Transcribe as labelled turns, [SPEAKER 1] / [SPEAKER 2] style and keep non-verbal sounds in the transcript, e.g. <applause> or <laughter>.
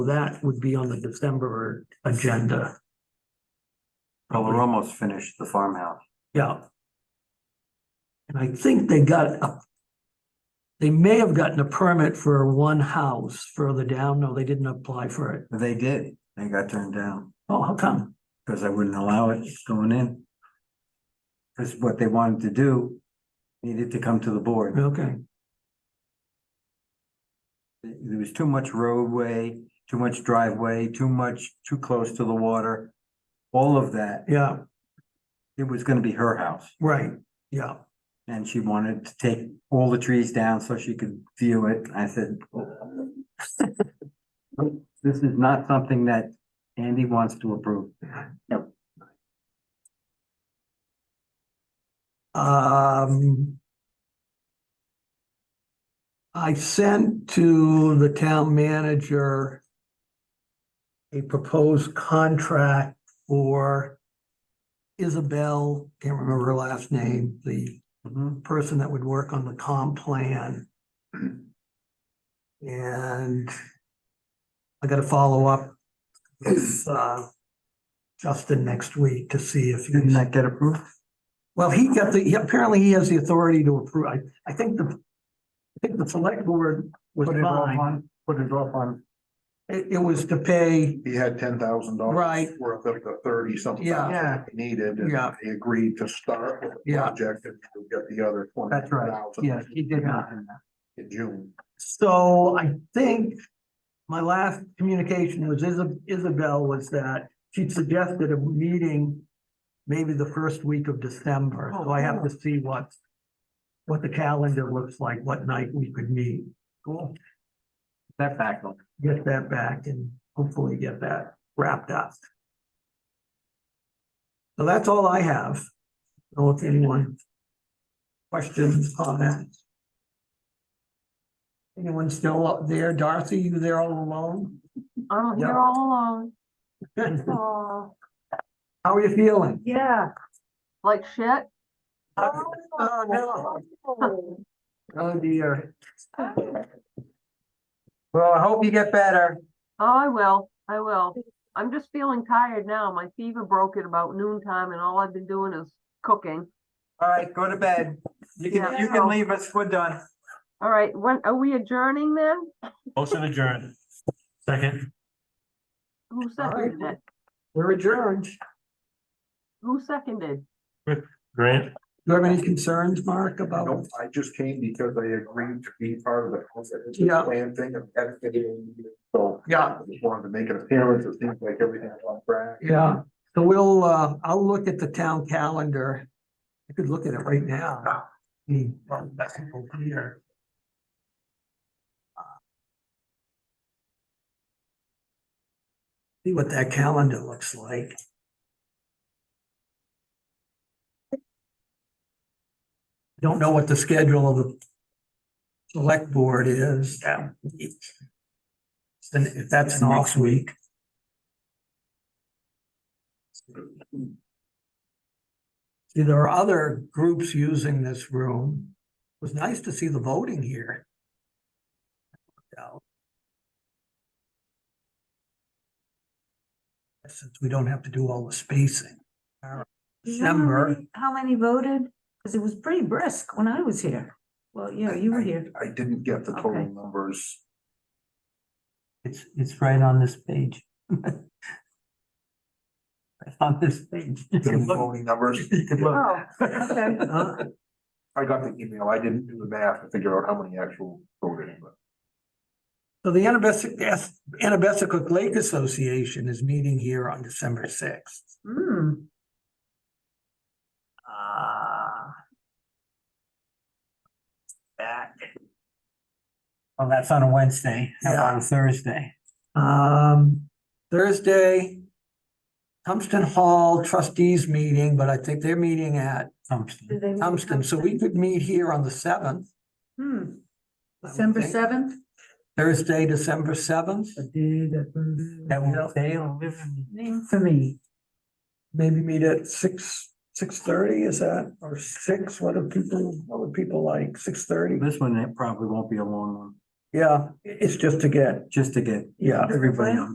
[SPEAKER 1] That would be on the December agenda.
[SPEAKER 2] Well, we're almost finished the farmhouse.
[SPEAKER 1] Yeah. And I think they got a. They may have gotten a permit for one house further down. No, they didn't apply for it.
[SPEAKER 2] They did. They got turned down
[SPEAKER 1] Oh, how come?
[SPEAKER 2] because I wouldn't allow it going in. Because what they wanted to do needed to come to the board.
[SPEAKER 1] Okay,
[SPEAKER 2] There was too much roadway, too much driveway, too much, too close to the water. All of that.
[SPEAKER 1] yeah,
[SPEAKER 2] It was gonna be her house
[SPEAKER 1] right, yeah,
[SPEAKER 2] and she wanted to take all the trees down so she could view it. I said, this is not something that Andy wants to approve.
[SPEAKER 1] um. I sent to the town manager. A proposed contract for. Isabel, can't remember her last name, the
[SPEAKER 2] Mhm.
[SPEAKER 1] person that would work on the comp plan. And I gotta follow up with, uh, Justin next week to see if
[SPEAKER 2] Didn't
[SPEAKER 1] he's,
[SPEAKER 2] that get approved?
[SPEAKER 1] well, he got the, he- apparently he has the authority to approve. I, I think the, I think the select board was
[SPEAKER 2] Put it off
[SPEAKER 1] fine.
[SPEAKER 2] on, put it off on,
[SPEAKER 1] It, it was to pay,
[SPEAKER 3] He had ten thousand dollars.
[SPEAKER 1] Right.
[SPEAKER 3] Worth of the thirty something.
[SPEAKER 1] Yeah.
[SPEAKER 2] Yeah.
[SPEAKER 3] he Needed, and
[SPEAKER 1] Yeah.
[SPEAKER 3] he agreed to start with the
[SPEAKER 1] Yeah.
[SPEAKER 3] project and we get the other twenty
[SPEAKER 2] That's right.
[SPEAKER 3] thousand.
[SPEAKER 2] yes, he did not. do that.
[SPEAKER 3] In June.
[SPEAKER 1] so I think my last communication was Isa- Isabel was that she suggested a meeting maybe the first week of December,
[SPEAKER 2] Oh,
[SPEAKER 1] so I have to see what what the calendar looks like, what night we could meet. Cool.
[SPEAKER 2] That back on.
[SPEAKER 1] Get that back and hopefully get that wrapped up. So that's all I have. So if anyone questions, comments? Anyone still up there? Darcy, you there all alone?
[SPEAKER 4] Oh,
[SPEAKER 1] Yeah.
[SPEAKER 4] you're all alone.
[SPEAKER 1] How
[SPEAKER 4] Oh,
[SPEAKER 1] are you feeling?
[SPEAKER 4] yeah. Like shit.
[SPEAKER 1] Oh, no.
[SPEAKER 4] <laughs>
[SPEAKER 1] Oh dear.
[SPEAKER 2] Well, I hope you get better.
[SPEAKER 4] Oh, I will, I will. I'm just feeling tired now. My fever broke at about noon time and all I've been doing is cooking.
[SPEAKER 2] All right, go to bed. You can, you can leave us, we're done.
[SPEAKER 4] All right, when, are we adjourning then?
[SPEAKER 5] Motion adjourned. Second,
[SPEAKER 4] Who
[SPEAKER 1] right.
[SPEAKER 4] seconded it?
[SPEAKER 1] We're adjourned. Do
[SPEAKER 4] Who seconded?
[SPEAKER 5] Grant,
[SPEAKER 1] you have any concerns, Mark,
[SPEAKER 3] Nope,
[SPEAKER 1] about?
[SPEAKER 3] I just came because I agreed to be part of the concept
[SPEAKER 1] Yeah.
[SPEAKER 3] plan thing and had to get in. So.
[SPEAKER 1] Yeah.
[SPEAKER 3] I just wanted to make an appearance. It seems like everything's on track.
[SPEAKER 1] Yeah, so we'll, uh, I'll look at the town calendar. I could look at it right now. Hmm, well, that's over here. See what that calendar looks like. Don't know what the schedule of the select board is. Yeah. Then if that's an off week. See, there are other groups using this room. It was nice to see the voting here. Since we don't have to do all the spacing. All right.
[SPEAKER 6] Do you know how
[SPEAKER 1] December.
[SPEAKER 6] many- How many voted? Because it was pretty brisk when I was here. Well, yeah, you were here.
[SPEAKER 3] I didn't get the total
[SPEAKER 6] Okay.
[SPEAKER 3] numbers.
[SPEAKER 2] It's, it's right on this
[SPEAKER 1] <laughs>
[SPEAKER 2] page. Right On this
[SPEAKER 1] <laughs>
[SPEAKER 2] page.
[SPEAKER 3] The voting numbers.
[SPEAKER 6] Oh, okay.
[SPEAKER 4] <laughs>
[SPEAKER 1] Uh,
[SPEAKER 3] I got the email. I didn't do the math to figure out how many actual voted, but.
[SPEAKER 1] So the Anabesic, Anabesic Lake Association is meeting here on December sixth.
[SPEAKER 6] Hmm.
[SPEAKER 1] Uh, Back.
[SPEAKER 2] Well, Oh, that's on a Wednesday, not on a Thursday.
[SPEAKER 1] Um, Thursday, Tumston Hall trustees meeting, but I think they're meeting at
[SPEAKER 2] Something.
[SPEAKER 6] Do they want to
[SPEAKER 1] Tumston, so we could meet here on the seventh.
[SPEAKER 6] Hmm, December seventh?
[SPEAKER 1] Thursday, December seventh,
[SPEAKER 2] That will, they'll live in
[SPEAKER 6] Name for me.
[SPEAKER 1] maybe meet at six, six thirty, is that, or six, what do people, what would people like, six thirty?
[SPEAKER 2] This one, it probably won't be a long one.
[SPEAKER 1] Yeah, it's just to get,
[SPEAKER 2] just to get
[SPEAKER 1] yeah.
[SPEAKER 2] everybody on